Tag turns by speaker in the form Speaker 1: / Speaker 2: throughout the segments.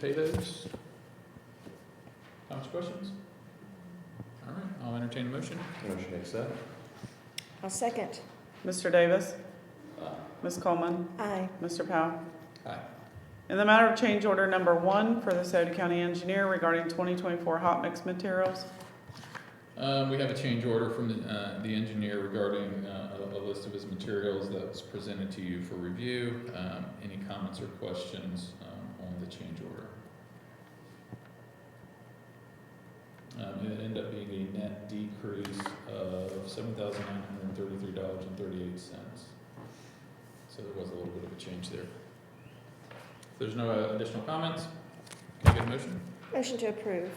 Speaker 1: pay those? Comments, questions? All right, I'll entertain a motion.
Speaker 2: Motion to accept?
Speaker 3: I'll second.
Speaker 4: Mr. Davis,
Speaker 2: Aye.
Speaker 4: Ms. Coleman,
Speaker 3: Aye.
Speaker 4: Mr. Powell.
Speaker 1: Aye.
Speaker 4: In the matter of change order number one for the Sauter County Engineer regarding 2024 hot mix materials,
Speaker 1: Um, we have a change order from the, uh, the engineer regarding, uh, a, a list of his materials that was presented to you for review. Um, any comments or questions, um, on the change order? Um, it ended up being a net decrease of seven thousand nine hundred and thirty-three dollars and thirty-eight cents. So there was a little bit of a change there. If there's no uh, additional comments, can I get a motion?
Speaker 3: Motion to approve.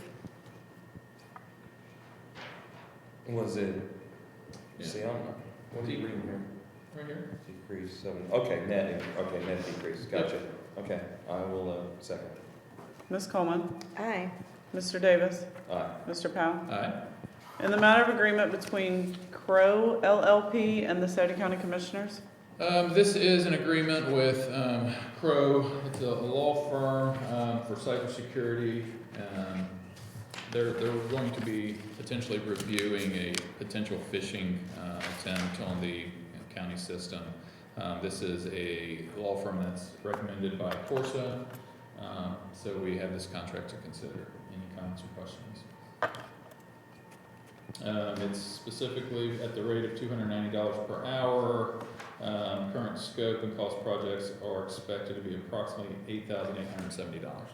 Speaker 2: Was it,
Speaker 1: Yeah.
Speaker 2: see, I'm, what are you reading here?
Speaker 1: Right here?
Speaker 2: Decrease seven, okay, net, in- okay, net decrease, gotcha. Okay, I will, uh, second.
Speaker 4: Ms. Coleman,
Speaker 3: Aye.
Speaker 4: Mr. Davis,
Speaker 2: Aye.
Speaker 4: Mr. Powell.
Speaker 1: Aye.
Speaker 4: In the matter of agreement between Crow LLP and the Sauter County Commissioners,
Speaker 1: Um, this is an agreement with, um, Crow, it's a law firm, um, for cybersecurity. Um, they're, they're going to be potentially reviewing a potential phishing, uh, attempt on the county system. Um, this is a law firm that's recommended by Corsa, um, so we have this contract to consider. Any comments or questions? Um, it's specifically at the rate of two hundred ninety dollars per hour, um, current scope and cost projects are expected to be approximately eight thousand eight hundred and seventy dollars.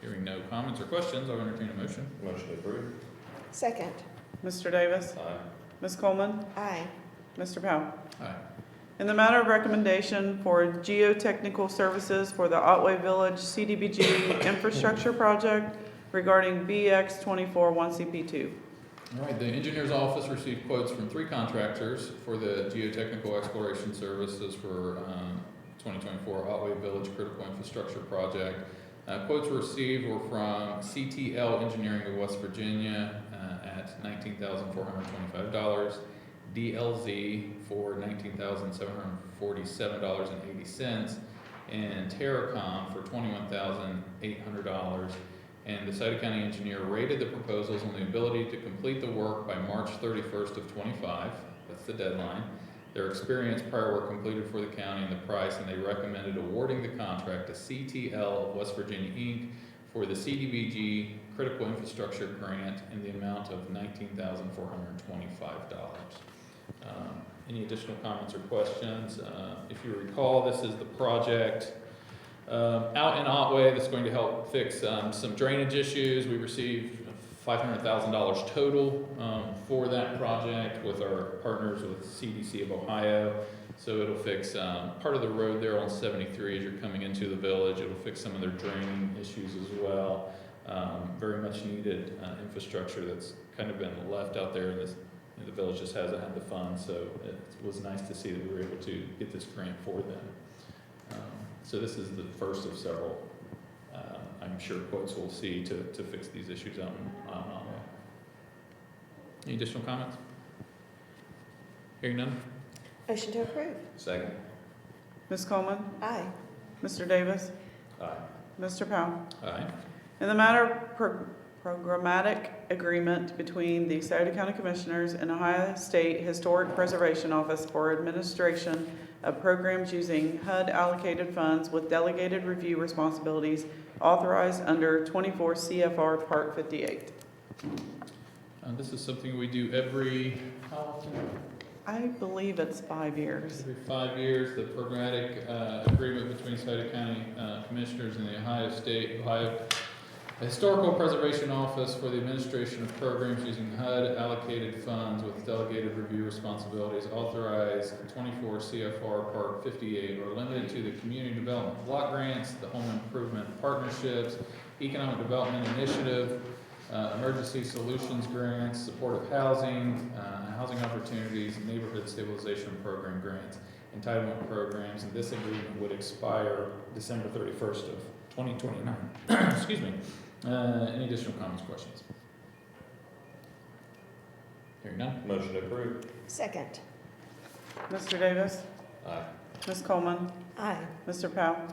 Speaker 1: Hearing no comments or questions, I'll entertain a motion.
Speaker 2: Motion approved?
Speaker 3: Second.
Speaker 4: Mr. Davis,
Speaker 2: Aye.
Speaker 4: Ms. Coleman,
Speaker 3: Aye.
Speaker 4: Mr. Powell.
Speaker 1: Aye.
Speaker 4: In the matter of recommendation for geotechnical services for the Otway Village CDBG infrastructure project regarding BX twenty-four one CP two.
Speaker 1: All right, the engineer's office received quotes from three contractors for the geotechnical exploration services for, um, twenty twenty-four Otway Village Critical Infrastructure Project. Uh, quotes received were from CTL Engineering of West Virginia, uh, at nineteen thousand four hundred twenty-five dollars. DLZ for nineteen thousand seven hundred forty-seven dollars and eighty cents. And Terracom for twenty-one thousand eight hundred dollars. And the Sauter County engineer rated the proposals on the ability to complete the work by March thirty-first of twenty-five, that's the deadline. Their experience prior work completed for the county and the price, and they recommended awarding the contract to CTL of West Virginia Inc. for the CDBG Critical Infrastructure Grant in the amount of nineteen thousand four hundred and twenty-five dollars. Um, Any additional comments or questions? Uh, If you recall, this is the project um, out in Otway that's going to help fix um, some drainage issues. We received $500,000 total um, for that project with our partners with CDC of Ohio. So it'll fix um, part of the road there on 73 as you're coming into the village. It'll fix some of their draining issues as well. Um, very much needed uh, infrastructure that's kind of been left out there in this. and The village just hasn't had the funds, so it was nice to see that we were able to get this grant for them. Um, So this is the first of several, uh, I'm sure quotes we'll see to, to fix these issues out in out in Otway. Any additional comments? Hearing none?
Speaker 3: Motion to approve.
Speaker 2: Second?
Speaker 4: Ms. Coleman,
Speaker 3: Aye.
Speaker 4: Mr. Davis,
Speaker 2: Aye.
Speaker 4: Mr. Powell.
Speaker 1: Aye.
Speaker 4: In the matter of pro- programmatic agreement between the Sauter County Commissioners and Ohio State Historic Preservation Office for administration of programs using HUD allocated funds with delegated review responsibilities authorized under twenty-four CFR Part fifty-eight.
Speaker 1: Uh, This is something we do every, how often?
Speaker 4: I believe it's five years.
Speaker 1: Every five years, the programmatic uh, agreement between Sauter County uh, Commissioners and the Ohio State, Ohio Historical Preservation Office for the Administration of Programs Using HUD Allocated Funds with Delegated Review Responsibilities authorized twenty-four CFR Part fifty-eight are limited to the community development block grants, the home improvement partnerships, economic development initiative, uh, emergency solutions grants, supportive housing, uh, housing opportunities, neighborhood stabilization program grants, entitlement programs, and this agreement would expire December thirty-first of twenty twenty-nine. Excuse me. Uh, any additional comments, questions? Hearing none?
Speaker 2: Motion approved?
Speaker 3: Second.
Speaker 4: Mr. Davis,
Speaker 2: Aye.
Speaker 4: Ms. Coleman,
Speaker 3: Aye.
Speaker 4: Mr. Powell.